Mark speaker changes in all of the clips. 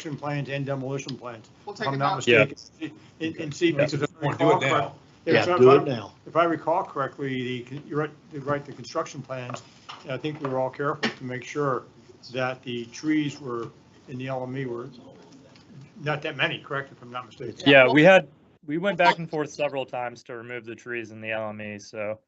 Speaker 1: construction plans and demolition plans.
Speaker 2: We'll
Speaker 1: If
Speaker 2: take
Speaker 1: I'm
Speaker 2: it
Speaker 1: not
Speaker 2: out.
Speaker 3: Yeah.
Speaker 1: mistaken, and, and see.
Speaker 3: Yeah.
Speaker 1: if I
Speaker 4: Or do it now.
Speaker 1: recall correct-
Speaker 5: Yeah,
Speaker 1: if I-
Speaker 5: do it now.
Speaker 1: If I recall correctly, the, con- you're right, you're right, the construction plans, I think we were all careful to make sure that the trees were, in the LME were not that many, correct, if I'm not mistaken?
Speaker 3: Yeah, we had, we went back and forth several times to remove the trees in the LME, so.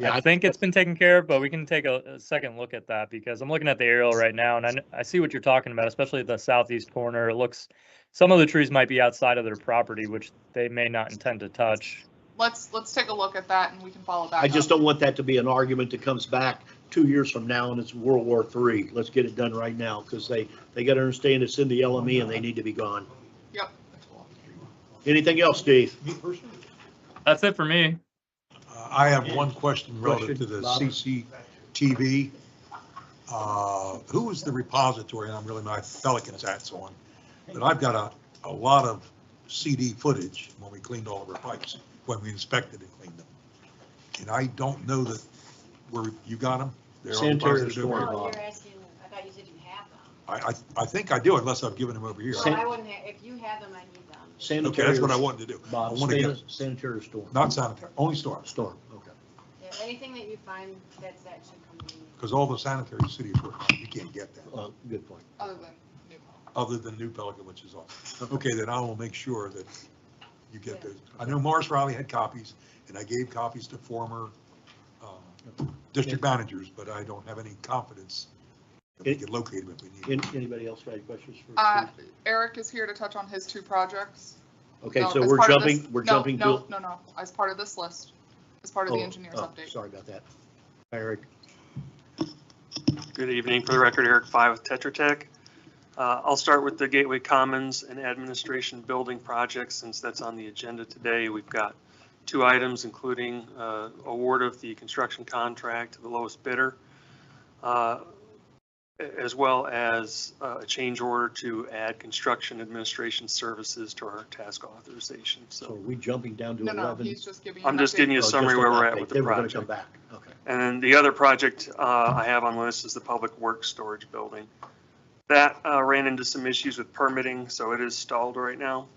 Speaker 5: Yeah,
Speaker 3: I think it's been taken care of, but we can take a, a second look at that because I'm looking at the aerial right now and I, kn- I see what you're talking about, especially the southeast corner. It looks, some of the trees might be outside of their property, which they may not intend to touch.
Speaker 2: Let's, let's take a look at that and we can follow back.
Speaker 5: I just
Speaker 2: up.
Speaker 5: don't want that to be an argument that comes back two years from now and it's World War III. Let's get it done right now because they, they got to understand it's in the LME and they need to be gone.
Speaker 2: Yep.
Speaker 5: Anything else, Steve?
Speaker 4: Me personally?
Speaker 3: That's it for me.
Speaker 4: Uh, I have one question relative to the
Speaker 1: Question,
Speaker 4: CCTV. Uh, Who is the repository, and I'm really, my Pelican's hat's on, but I've got a, a lot of CD footage when we cleaned all of our pipes, when we inspected and cleaned them. And I don't know that, where, you got them? They're on
Speaker 5: Sanitary
Speaker 4: repository.
Speaker 5: Sorry,
Speaker 6: Oh,
Speaker 5: Bob.
Speaker 6: you're asking, I thought you said you have them.
Speaker 4: I, I, I think I do unless I've given them over here.
Speaker 5: San-
Speaker 6: Well, I wouldn't, ha- if you have them, I need them.
Speaker 4: Okay, that's what I wanted to do. I
Speaker 5: Bob,
Speaker 4: want to get,
Speaker 5: sanit- sanitary storm.
Speaker 4: not sanitary, only storms,
Speaker 5: Storm, okay.
Speaker 6: Yeah, anything that you find that's, that should come to me.
Speaker 4: because all the sanitary cities were, you can't get that.
Speaker 5: Uh, Good point.
Speaker 2: Other than new home.
Speaker 4: other than New Pelican, which is awesome. Okay, then I will make sure that you get those. I know Morris Riley had copies, and I gave copies to former um, district managers, but I don't have any confidence that we can locate them if we need them.
Speaker 5: An- Anybody else got any questions for
Speaker 2: Uh,
Speaker 5: Steve?
Speaker 2: Eric is here to touch on his two projects.
Speaker 5: Okay,
Speaker 2: No,
Speaker 5: so
Speaker 2: as
Speaker 5: we're
Speaker 2: part of this-
Speaker 5: jumping, we're
Speaker 2: no,
Speaker 5: jumping.
Speaker 2: No,
Speaker 5: to-
Speaker 2: no, no, as part of this list, as part of the
Speaker 5: oh,
Speaker 2: engineer's
Speaker 5: oh,
Speaker 2: update.
Speaker 5: Sorry about that. Eric,
Speaker 7: Good evening. For the record, Eric Five with Tetra Tech. Uh, I'll start with the Gateway Commons and Administration Building Project, since that's on the agenda today. We've got two items, including uh, award of the construction contract to the lowest bidder, uh, a- as well as uh, a change order to add construction administration services to our task authorization.
Speaker 5: so are
Speaker 7: So
Speaker 5: we jumping down to
Speaker 2: No,
Speaker 5: 11?
Speaker 2: no, he's just giving. you
Speaker 7: I'm
Speaker 2: an
Speaker 7: just
Speaker 2: update.
Speaker 7: giving you
Speaker 5: Oh,
Speaker 7: a
Speaker 5: just
Speaker 7: summary
Speaker 5: an
Speaker 7: where we're
Speaker 5: update.
Speaker 7: at with
Speaker 5: They
Speaker 7: the
Speaker 5: were gonna come
Speaker 7: project.
Speaker 5: back, okay.
Speaker 7: And then the other project uh, I have on the list is the Public Works Storage Building. That uh, ran into some issues with permitting, so it is stalled right now.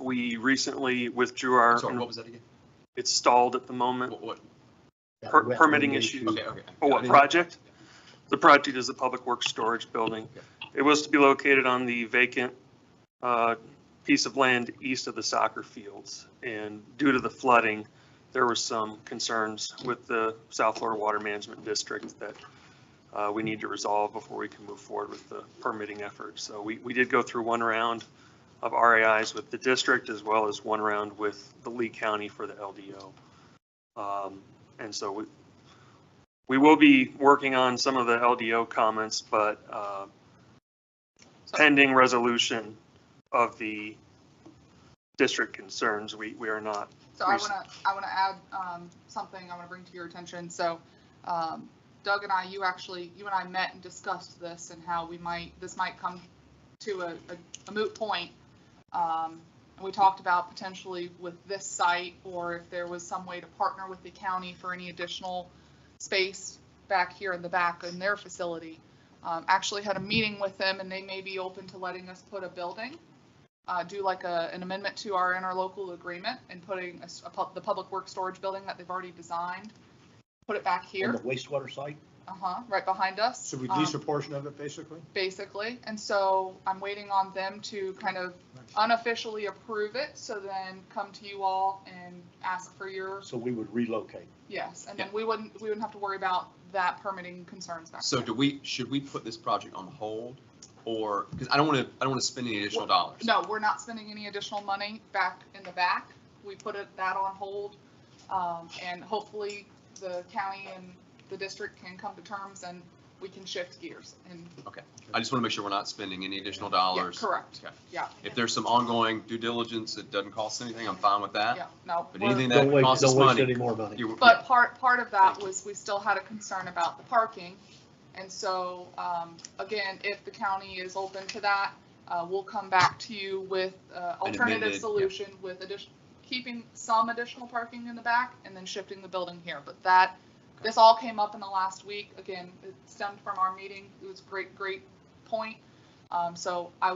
Speaker 7: We recently withdrew
Speaker 8: I'm
Speaker 7: our,
Speaker 8: sorry, what was that again?
Speaker 7: it's stalled at the moment.
Speaker 8: What, what?
Speaker 5: That
Speaker 7: Per-
Speaker 5: wetland
Speaker 7: permitting
Speaker 5: issue.
Speaker 8: Okay, okay.
Speaker 7: For
Speaker 8: I
Speaker 7: what
Speaker 8: didn't-
Speaker 7: project? The project is the Public Works Storage Building. It was to be located on the vacant uh, piece of land east of the soccer fields. And due to the flooding, there were some concerns with the South Florida Water Management District that uh, we need to resolve before we can move forward with the permitting effort. So we, we did go through one round of RAIs with the district as well as one round with the Lee County for the LDO. Um, And so we, we will be working on some of the LDO comments, but uh, pending resolution of the district concerns, we, we are not.
Speaker 2: So I want to, I want to add um, something I want to bring to your attention. So um, Doug and I, you actually, you and I met and discussed this and how we might, this might come to a a moot point. Um, And we talked about potentially with this site, or if there was some way to partner with the county for any additional space back here in the back in their facility. Um, Actually had a meeting with them and they may be open to letting us put a building uh, do like a, an amendment to our interlocal agreement and putting a s- a pub- the public work storage building that they've already designed, put it back
Speaker 5: On
Speaker 2: here,
Speaker 5: the wastewater site?
Speaker 2: uh-huh, right behind us.
Speaker 1: So we
Speaker 2: um,
Speaker 1: lease a portion of it, basically?
Speaker 2: Basically, and so I'm waiting on them to kind of unofficially approve it, so then come to you all and ask for your,
Speaker 5: So we would relocate.
Speaker 2: yes, and then we wouldn't, we wouldn't have to worry about that permitting concerns back
Speaker 8: So
Speaker 2: there.
Speaker 8: do we, should we put this project on hold or, because I don't want to, I don't want to spend any additional dollars.
Speaker 2: No, we're not spending any additional money back in the back. We put it, that on hold. Um, and hopefully the county and the district can come to terms and we can shift gears and,
Speaker 8: I just want to make sure we're not spending any additional
Speaker 2: yeah,
Speaker 8: dollars.
Speaker 2: correct.
Speaker 8: Okay.
Speaker 2: Yeah,
Speaker 8: If there's some ongoing due diligence that doesn't cost anything, I'm fine with that.
Speaker 2: yeah, no.
Speaker 8: But
Speaker 2: we're-
Speaker 8: anything that
Speaker 5: Don't waste,
Speaker 8: costs us
Speaker 5: don't waste
Speaker 8: money.
Speaker 5: any more money.
Speaker 8: you-
Speaker 2: But part, part of that
Speaker 8: Thank you.
Speaker 2: was we still had a concern about the parking. And so, um, again, if the county is open to that, uh, we'll come back to you with, uh,
Speaker 8: An amended,
Speaker 2: alternative
Speaker 8: yeah.
Speaker 2: solution with addition, keeping some additional parking in the back and then shifting the building here. But that, this all came up in the last week. Again, it stemmed from our meeting. It was a great, great point. Um, so I